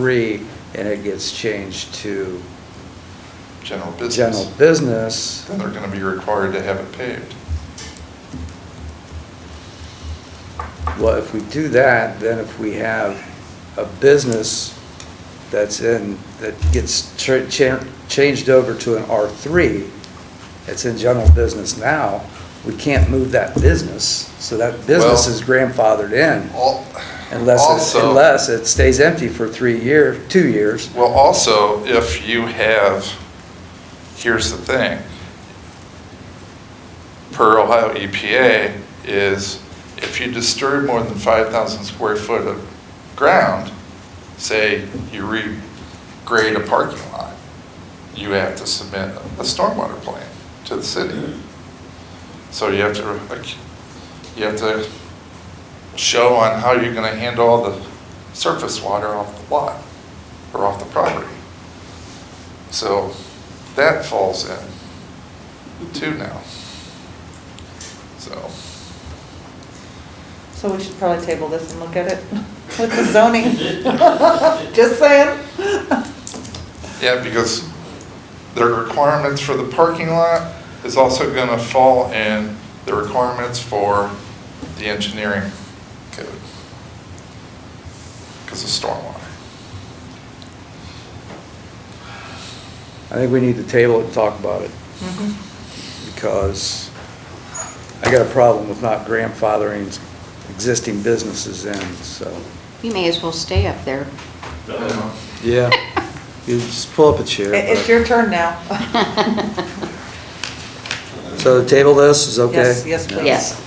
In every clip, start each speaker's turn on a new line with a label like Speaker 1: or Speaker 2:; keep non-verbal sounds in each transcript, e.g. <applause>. Speaker 1: three, and it gets changed to general
Speaker 2: general business,
Speaker 1: business,
Speaker 2: then they're gonna be required to have it paved.
Speaker 1: well, if we do that, then if we have a business that's in, that gets tra- cha- changed over to an R3, it's in general business now, we can't move that business, so that business
Speaker 2: Well-
Speaker 1: is grandfathered in.
Speaker 2: Al-
Speaker 1: Unless, it-
Speaker 2: also-
Speaker 1: unless it stays empty for three year, two years.
Speaker 2: Well, also, if you have, here's the thing. Per Ohio EPA is if you disturb more than 5,000 square foot of ground, say you regrade a parking lot, you have to submit a stormwater plan to the city. So you have to, like, you have to show on how you're gonna handle all the surface water off the lot or off the property. So that falls in too now. So,
Speaker 3: So we should probably table this and look at it <laughs> with the zoning. <laughs> Just saying.
Speaker 2: yeah, because the requirements for the parking lot is also gonna fall in the requirements for the engineering code. Because of stormwater.
Speaker 1: I think we need to table it and talk about it,
Speaker 3: Mm-hmm.
Speaker 1: because I got a problem with not grandfathering existing businesses in, so.
Speaker 4: You may as well stay up there.
Speaker 3: <laughs>
Speaker 1: Yeah. You just pull up a chair.
Speaker 3: It- It's your turn now. <laughs>
Speaker 1: but- So table this is okay?
Speaker 3: Yes, yes, please.
Speaker 4: Yes.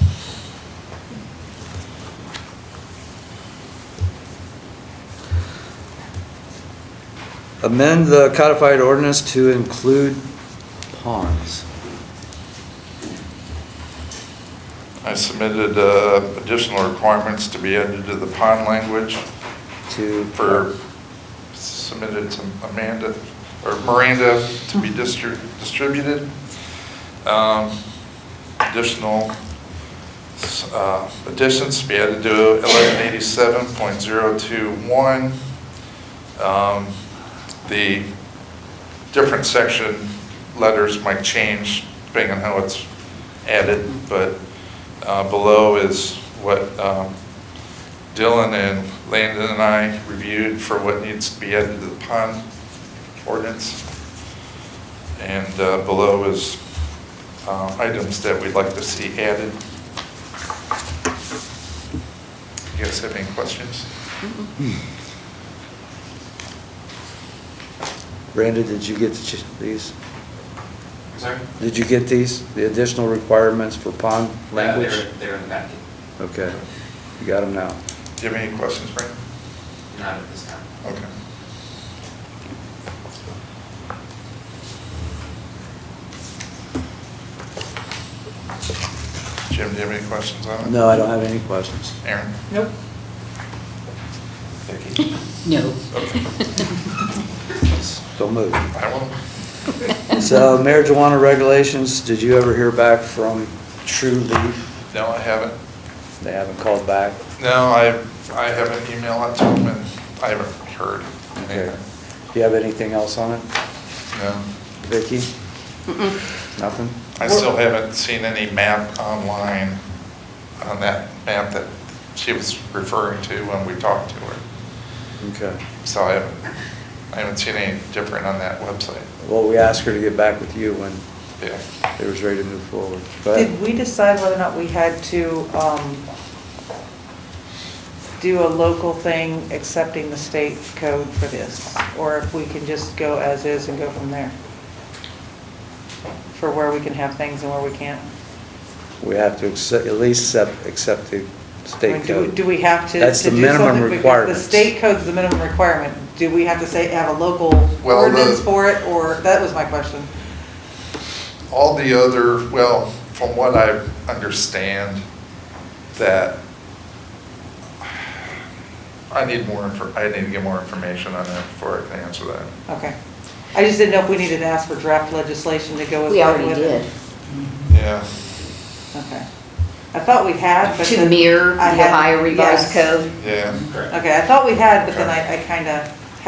Speaker 1: Amend the codified ordinance to include ponds.
Speaker 2: I submitted uh, additional requirements to be added to the pond language
Speaker 1: To.
Speaker 2: for, submitted to Amanda, or Miranda to be distri- distributed. Um, Additional uh, additions to be added to 1187.021. Um, The different section letters might change depending on how it's added, but uh, below is what um, Dylan and Landon and I reviewed for what needs to be added to the pond ordinance. And uh, below is uh, items that we'd like to see added. You guys have any questions?
Speaker 1: Brandon, did you get the ch- these?
Speaker 5: Sorry?
Speaker 1: Did you get these, the additional requirements for pond language?
Speaker 5: Uh, They're, they're in the packet,
Speaker 1: Okay, you got them now.
Speaker 2: Do you have any questions, Brandon?
Speaker 5: not at this time.
Speaker 2: Okay. Jim, do you have any questions on it?
Speaker 1: No, I don't have any questions.
Speaker 2: Aaron?
Speaker 3: Nope.
Speaker 2: Vicki?
Speaker 4: No.
Speaker 2: Okay.
Speaker 1: So moved.
Speaker 2: I will.
Speaker 1: So marijuana regulations, did you ever hear back from True Leaf?
Speaker 2: No, I haven't.
Speaker 1: They haven't called back?
Speaker 2: No, I, I have an email out to him and I haven't heard
Speaker 1: Okay.
Speaker 2: anything.
Speaker 1: Do you have anything else on it,
Speaker 2: No.
Speaker 1: Vicki? Nothing?
Speaker 2: I still haven't seen any map online on that map that she was referring to when we talked to her.
Speaker 1: Okay.
Speaker 2: So I haven't, I haven't seen any different on that website.
Speaker 1: Well, we asked her to get back with you when
Speaker 2: Yeah.
Speaker 1: it was ready to move forward. Go ahead.
Speaker 3: Did we decide whether or not we had to um, do a local thing accepting the state code for this? Or if we can just go as is and go from there? For where we can have things and where we can't?
Speaker 1: We have to accept, at least accept, accept the
Speaker 3: I mean,
Speaker 1: state
Speaker 3: do we-
Speaker 1: code.
Speaker 3: Do we have to?
Speaker 1: That's
Speaker 3: to
Speaker 1: the
Speaker 3: do
Speaker 1: minimum
Speaker 3: something? Because
Speaker 1: requirements.
Speaker 3: The state code's the minimum requirement. Do we have to say, have a local
Speaker 2: Well, the-
Speaker 3: ordinance for it, or, that was my question.
Speaker 2: All the other, well, from what I understand, that I need more, infor- I need to get more information on that before I can answer that.
Speaker 3: Okay. I just didn't know if we needed to ask for draft legislation to go with.
Speaker 4: We already
Speaker 3: with
Speaker 4: did.
Speaker 3: it.
Speaker 2: Yeah.
Speaker 3: Okay. I thought we had, but
Speaker 4: To
Speaker 3: then
Speaker 4: mirror the
Speaker 3: I had-
Speaker 4: Ohio
Speaker 3: yes.
Speaker 4: revised code.
Speaker 2: Yeah.
Speaker 5: Correct.
Speaker 3: Okay, I thought we had, but then I, I kind of